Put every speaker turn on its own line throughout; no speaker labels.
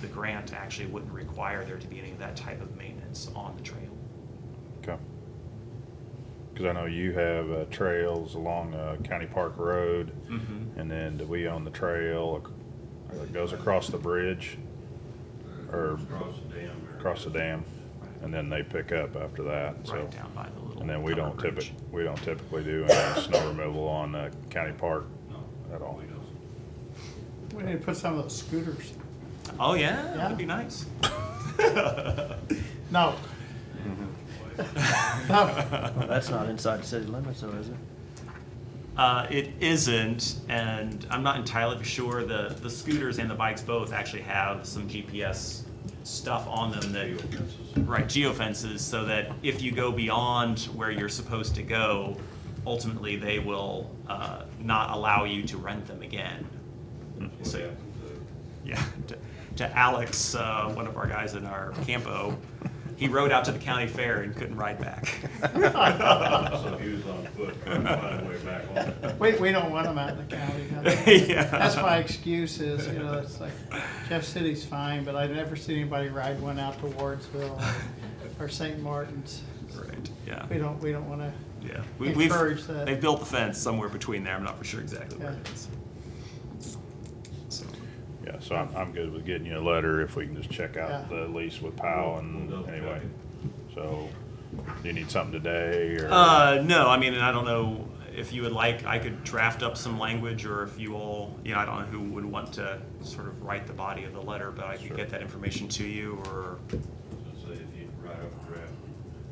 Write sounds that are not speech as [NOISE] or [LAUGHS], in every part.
the grant actually wouldn't require there to be any of that type of maintenance on the trail.
Okay. Because I know you have uh, trails along uh, County Park Road,
Mhm.
and then do we own the trail ac- that goes across the bridge Or-
Across the dam. or-
across the dam, and then they pick up after that. So,
Right down by the little.
and then we don't
covered
typically
bridge.
we don't typically do any snow removal on uh, County Park
No.
at all.
We don't.
We need to put some of those scooters.
Oh, yeah, that'd
Yeah.
be nice. [LAUGHS]
No, [LAUGHS]
Well, That's not inside the city limits though, is it?
Uh, it isn't, and I'm not entirely sure, the, the scooters and the bikes both actually have some GPS stuff on them that,
Fences.
right, geofences, so that if you go beyond where you're supposed to go, ultimately, they will, uh, not allow you to rent them again.
Mm-hmm.
That's
So-
what happened
Yeah, to, to Alex, uh, one of our guys in our campo, he rode out to the county fair and couldn't ride back.
to- So he was on foot, trying to find a way back on.
we, we don't want them out in the county. huh?
[LAUGHS] Yeah.
That's my excuse is, you know, it's like Jeff City's fine, but I've never seen anybody ride one out to Wardsville or St. Martin's.
Right, yeah.
We don't, we don't want to,
Yeah, we, we've
encourage that.
they've built the fence somewhere between there. I'm not for sure exactly where it
Yeah.
is. So,
Yeah, so I'm, I'm good with getting you a letter if we can just check out
Yeah.
the lease with Powell and
We'll double check
anyway.
it.
So, do you need something today or?
uh, no, I mean, and I don't know if you would like. I could draft up some language, or if you all, you know, I don't know who would want to sort of write the body of the letter, but I could
Sure.
get that information to you, or
So say if you write up a draft,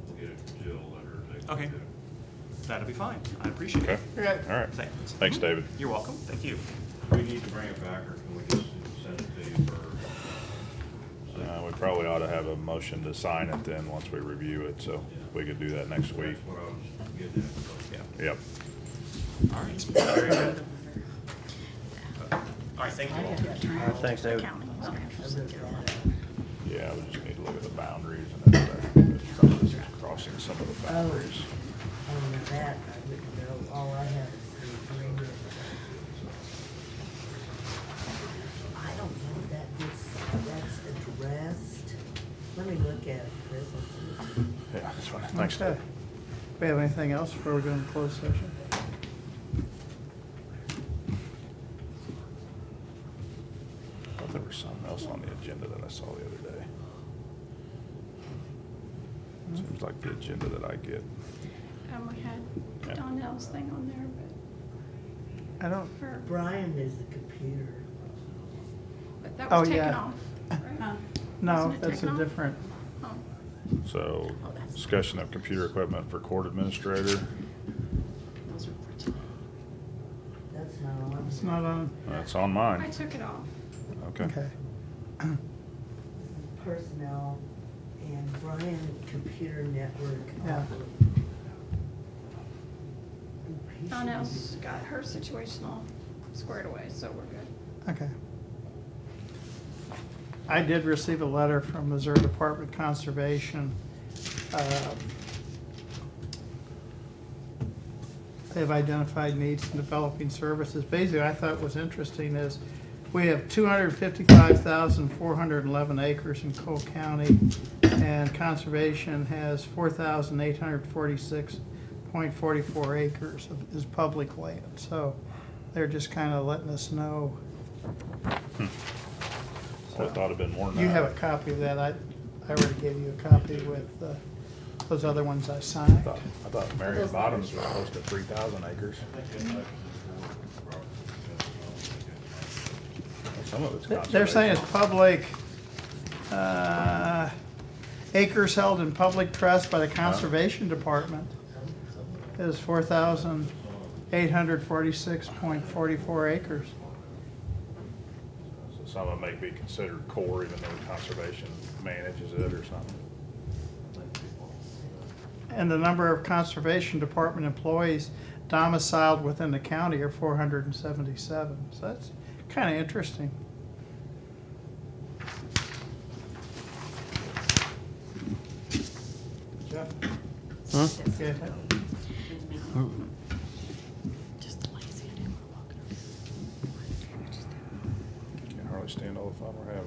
we'll get it from Jill, let her take. a
Okay.
look at it.
that'd be fine. I appreciate
Okay,
it.
all
Okay.
right.
Thanks. Mm-hmm.
Thanks, David.
You're welcome. Thank you.
We need to bring it back, or can we just send it to you for?
Uh, we probably ought to have a motion to sign it then, once we review it, so we could do that next week.
That's what I was getting
Yeah.
at. so.
Yep.
All right. Very good. All right. Thank you all.
Thanks, David.
Yeah, we just need to look at the boundaries and everything. It's probably just Crossing some of
Oh.
the boundaries.
On that, I wouldn't know, all I have is the agreement. I don't know that this, that's addressed. Let me look at it, Chris. I'll see.
Yeah, that's fine. Thanks,
Okay.
Dave.
We have anything else before we go into closed session?
I thought there was something else on the agenda that I saw the other day. Seems like the agenda that I get.
Um, we
Yeah.
had Donnell's thing on there,
I don't,
but for,
Brian is the computer.
but that
Oh,
was taken
yeah.
off. right?
no,
Wasn't it
that's a
taken off?
different,
Oh,
So, discussion of computer equipment for court administrator.
those are for today.
That's not on.
it's not on,
That's on
I
mine.
took it off.
Okay.
okay.
Personnel and Brian Computer Network.
Yeah.
He should be-
Donnell's got her situation all squared away, so we're good.
Okay. I did receive a letter from Missouri Department of Conservation. um, They've identified needs in developing services. Basically, I thought was interesting is we have two hundred fifty-five thousand, four hundred and eleven acres in Cole County. And conservation has four thousand, eight hundred forty-six point forty-four acres of, is public land. So they're just kind of letting us know.
Well, I thought it'd been more than that.
You have a copy of that. I, I already gave you a copy with uh, those other ones I
I
signed.
thought, I thought Marion Bottoms was close to three thousand acres.
I think that's like this board, Robert, that's all
Some
I got.
of it's
They- They're saying it's
conservation.
public, uh, acres held in public trust by the Conservation Department is four thousand eight hundred forty-six point forty-four acres.
So Some of it may be considered core even though conservation manages it or something.
And the number of Conservation Department employees domiciled within the county are four hundred and seventy-seven. So that's kind of interesting. Jeff? Okay.
Just lazy, I didn't want to walk it over.
Can't hardly stand all the fun we're having.